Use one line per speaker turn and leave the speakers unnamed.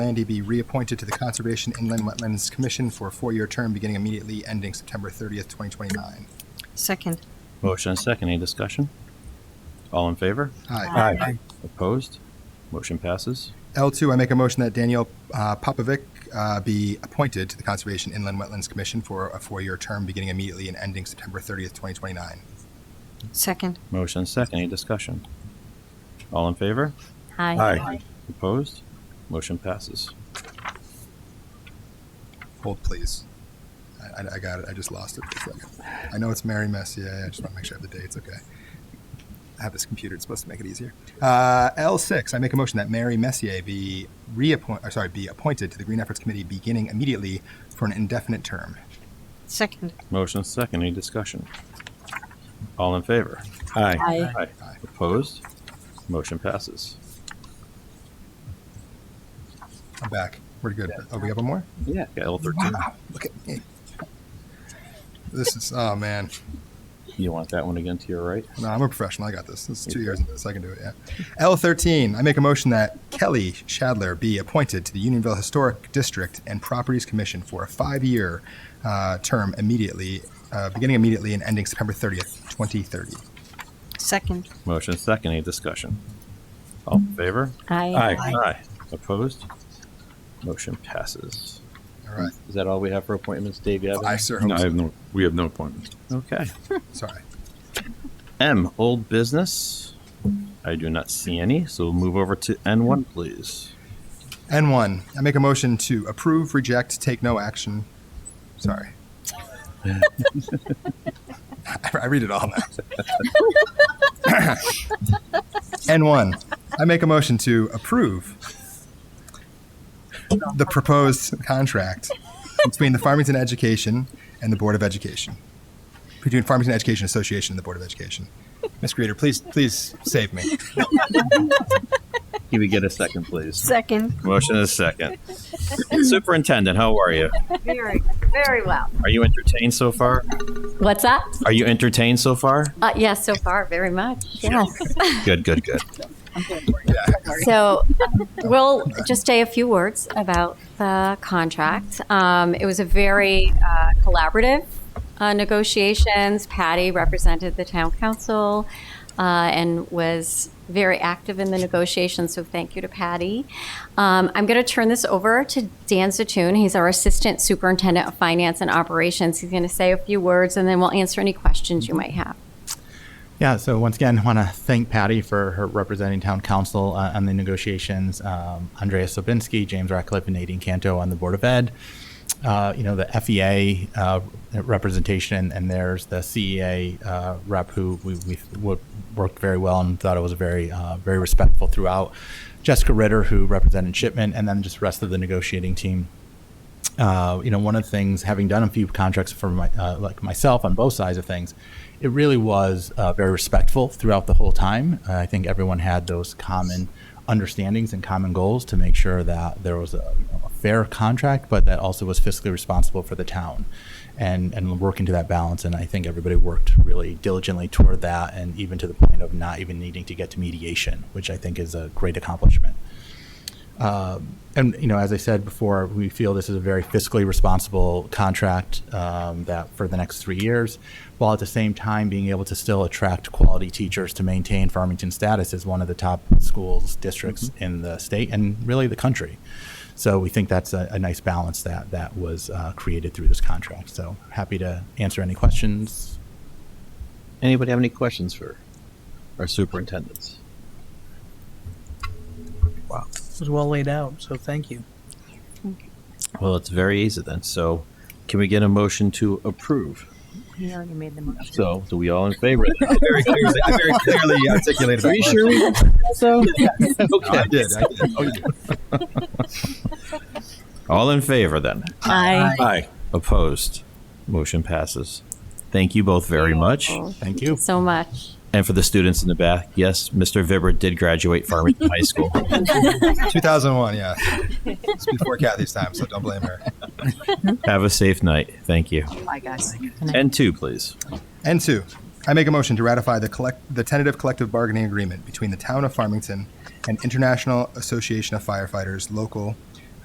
Landy be reappointed to the Conservation Inland Wetlands Commission for a four-year term beginning immediately ending September 30th, 2029.
Second.
Motion and second. Any discussion? All in favor?
Aye.
Aye.
Opposed? Motion passes.
L2, I make a motion that Daniel uh, Popovic uh, be appointed to the Conservation Inland Wetlands Commission for a four-year term beginning immediately and ending September 30th, 2029.
Second.
Motion and second. Any discussion? All in favor?
Aye.
Opposed? Motion passes.
Hold, please. I, I- I got it. I just lost it for a second. I know it's Mary Messier. I just want to make sure I have the dates. Okay. I have this computer. It's supposed to make it easier. Uh, L6, I make a motion that Mary Messier be reappoint, or sorry, be appointed to the Green Efforts Committee beginning immediately for an indefinite term.
Second.
Motion and second. Any discussion? All in favor?
Aye.
Aye.
Aye.
Opposed? Motion passes.
I'm back. We're good. Oh, we have one more?
Yeah. L thirteen.
Wow. Look at me. This is, oh man.
You want that one again to your right?
No, I'm a professional. I got this. It's two years into this. I can do it. Yeah. L13. I make a motion that Kelly Shadler be appointed to the Unionville Historic District and Properties Commission for a five-year uh, term immediately, uh, beginning immediately and ending September 30th, 2030.
Second.
Motion and second. Any discussion? All in favor?
Aye.
Aye. Opposed? Motion passes.
All right.
Is that all we have for appointments, Dave? You have
I
any?
sir
No,
hope
I have no, we have no appointments.
Okay.
Sorry.
M, old business. I do not see any, so we'll move over to N1, please.
N1. I make a motion to approve, reject, take no action. Sorry. I I read it all now. N1. I make a motion to approve the proposed contract between the Farmington Education and the Board of Education. Between Farmington Education Association and the Board of Education. Ms. Greeter, please, please save me.
Can we get a second, please?
Second.
Motion is second. Superintendent, how are you?
Very, very well.
Are you entertained so far?
What's up?
Are you entertained so far?
Uh, yeah, so far, very much. Yes.
Good, good, good.
so we'll just say a few words about the contract. Um, it was a very uh, collaborative uh, negotiations. Patty represented the town council uh, and was very active in the negotiations. So thank you to Patty. Um, I'm going to turn this over to Dan Zatoon. He's our assistant superintendent of finance and operations. He's going to say a few words, and then we'll answer any questions you might have.
Yeah, so once again, I want to thank Patty for her representing town council uh, on the negotiations. Um, Andrea Sobinski, James Ratcliffe, and Nadine Canto on the Board of Ed. Uh, you know, the FEA uh, representation, and, and there's the CEA uh, rep who we, we wo- worked very well and thought it was very, uh, very respectful throughout. Jessica Ritter, who represented Shipment, and then just the rest of the negotiating team uh, you know, one of the things, having done a few contracts for my, uh, like myself on both sides of things, it really was uh, very respectful throughout the whole time. Uh, I think everyone had those common understandings and common goals to make sure that there was a, you know, a fair contract, but that also was fiscally responsible for the town, and and working to that balance. And I think everybody worked really diligently toward that, and even to the point of not even needing to get to mediation, which I think is a great accomplishment. Um, and you know, as I said before, we feel this is a very fiscally responsible contract um, that for the next three years, while at the same time being able to still attract quality teachers to maintain Farmington status as one of the top schools districts in the state and really the country. So we think that's a, a nice balance that that was uh, created through this contract. So happy to answer any questions.
Anybody have any questions for our superintendents?
It was well laid out, so thank you.
Well, it's very easy then. So can we get a motion to approve?
He already made the motion.
So do we all in favor?
Very clearly, I very clearly articulated.
Are you
that
sure
motion.
we so?
No, I
Okay.
did. I did. Oh, yeah.
All in favor then?
Aye.
Aye. Opposed? Motion passes. Thank you both very much.
Oh,
Thank you.
so much.
And for the students in the back, yes, Mr. Vibber did graduate Farmington High School.
2001, yeah. It's before Kathy's time, so don't blame her.
Have a safe night. Thank you.
Aye, guys.
And two, please.
And two, I make a motion to ratify the collect, the tentative collective bargaining agreement between the town of Farmington and International Association of Firefighters Local